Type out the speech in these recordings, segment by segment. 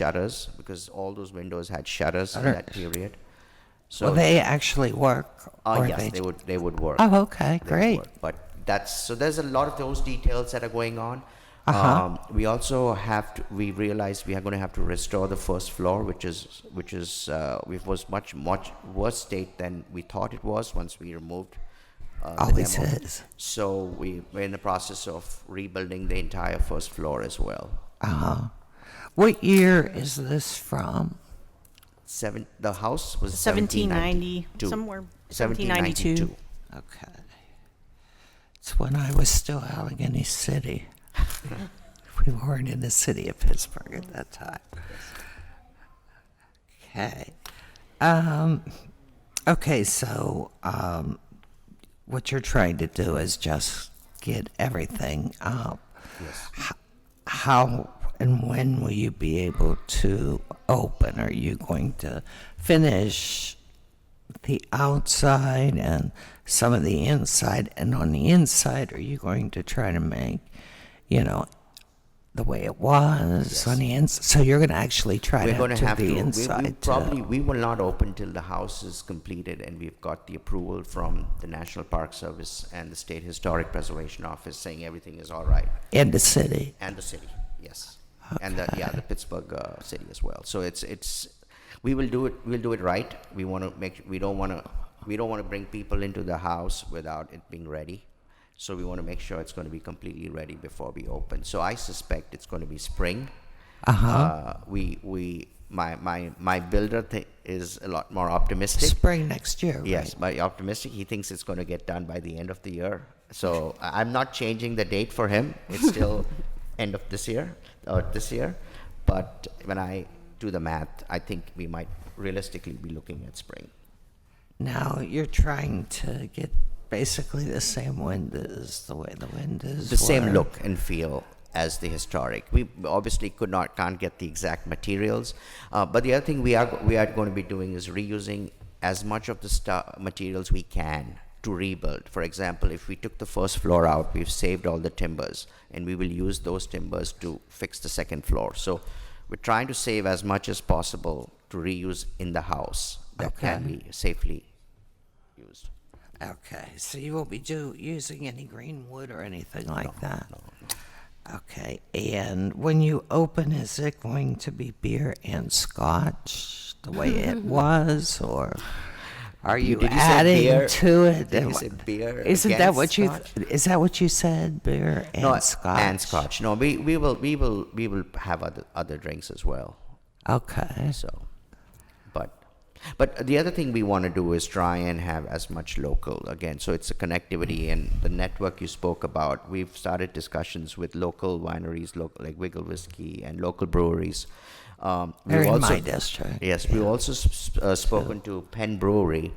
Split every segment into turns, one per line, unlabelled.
shutters because all those windows had shutters in
Shutter.
that period. So
Will they actually work?
uh,
or
yes, they
ju-
would they would work.
Oh,
They
okay,
would
great.
work. But that's so there's a lot of those details that are going on.
Uh-huh.
Um, we also have to we realized we are going to have to restore the first floor, which is which is uh, which was much much worse state than we thought it was once we removed. Uh, the
Always
demo.
is.
So we, we're in the process of rebuilding the entire first floor as well.
Uh-huh. What year is this from?
Seven. The house was
1790,
1792.
somewhere, 1792.
Okay. It's when I was still Allegheny City. we weren't in the city of Pittsburgh at that time. Okay. Um, okay, so um, what you're trying to do is just get everything up. Yes. How and when will you be able to open? Are you going to finish the outside and some of the inside. And on the inside, are you going to try to make, you know, the way it was on the inside? So you're going to actually try
We're
to
going
do
to have
the
to.
inside.
we, we
to-
probably we will not open till the house is completed and we've got the approval from the National Park Service and the State Historic Preservation Office saying everything is all right,
in the city.
and the city, yes, and the yeah the Pittsburgh uh, city as well. So it's it's we will do it. We'll do it right. We want to make. We don't want to. We don't want to bring people into the house without it being ready. So we want to make sure it's going to be completely ready before we open. So I suspect it's going to be spring.
Uh-huh.
Uh, we we my my my builder th- is a lot more optimistic.
Spring next year.
Yes, by optimistic, he thinks it's going to get done by the end of the year. So I- I'm not changing the date for him. It's still end of this year or this year. But when I do the math, I think we might realistically be looking at spring.
Now you're trying to get basically the same windows, the way the windows.
The same
were.
look and feel as the historic. We obviously could not can't get the exact materials, uh, but the other thing we are we are going to be doing is reusing as much of the stu- materials we can to rebuild. For example, if we took the first floor out, we've saved all the timbers, and we will use those timbers to fix the second floor. So we're trying to save as much as possible to reuse in the house that can be safely used.
Okay, so you won't be do, using any green wood or anything like that? Okay, and when you open, is it going to be beer and scotch the way it was, or are you
did you say
adding
beer-
to it?
did you
And
say
what-
beer
Isn't that
against
what you? th- Is that what you said? Beer and
No,
scotch.
and scotch. No, we, we will we will we will have other other drinks as well.
Okay.
So, but but the other thing we want to do is try and have as much local again. So it's a connectivity and the network you spoke about. We've started discussions with local wineries, local like Wiggle Whiskey and local breweries. Um, we've
They're in
also-
my district.
Yes, we've also s- uh, spoken to Penn Brewery,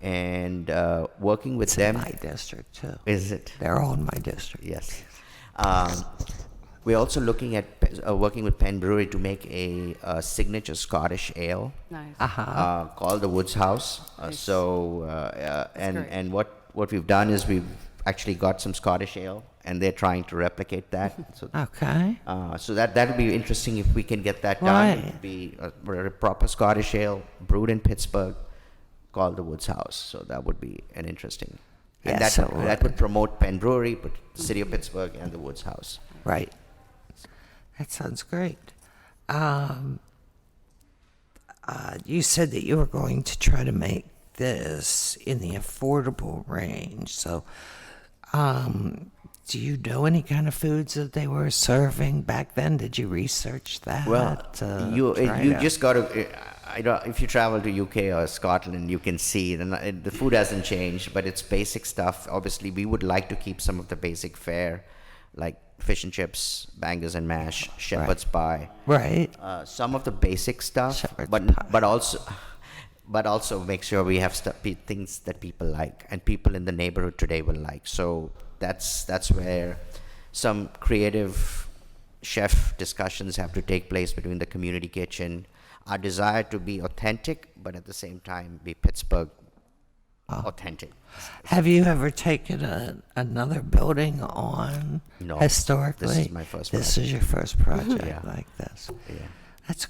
and uh, working with
It's in
them
my district too.
is it
They're all in my district.
Yes. Um, we're also looking at pe- uh, working with Penn Brewery to make a, uh signature Scottish ale
Nice.
Uh huh.
uh, called the Woods House. Uh,
Uh-huh. Nice.
so, uh, uh, and
great.
and what what we've done is we've actually got some Scottish ale, and they're trying to replicate that. So,
Okay.
uh, so that that'll be interesting if we can get that done.
Right.
It'd be a, a proper Scottish ale brewed in Pittsburgh, called the Woods House. So that would be an interesting. And
Yes,
that,
it
would,
would.
that would promote Penn Brewery, but the city of Pittsburgh and the Woods House.
Right. That sounds great. Um, uh, you said that you were going to try to make this in the affordable range. So, um, do you know any kind of foods that they were serving back then? Did you research that?
Well,
to
you
try
you
to-
just got to. I don't, if you travel to UK or Scotland, you can see the, n- the food hasn't changed, but it's basic stuff. Obviously, we would like to keep some of the basic fare, like fish and chips, bangers and mash, shepherd's pie.
right.
uh, some of the basic stuff,
Shepherd's
but
pie.
but also but also make sure we have stuff, pe- things that people like and people in the neighborhood today will like. So that's that's where some creative chef discussions have to take place between the community kitchen. Our desire to be authentic, but at the same time be Pittsburgh authentic.
Have you ever taken a, another building on
No, this is
historically?
my first
This is your first project
Yeah.
like this.
Yeah.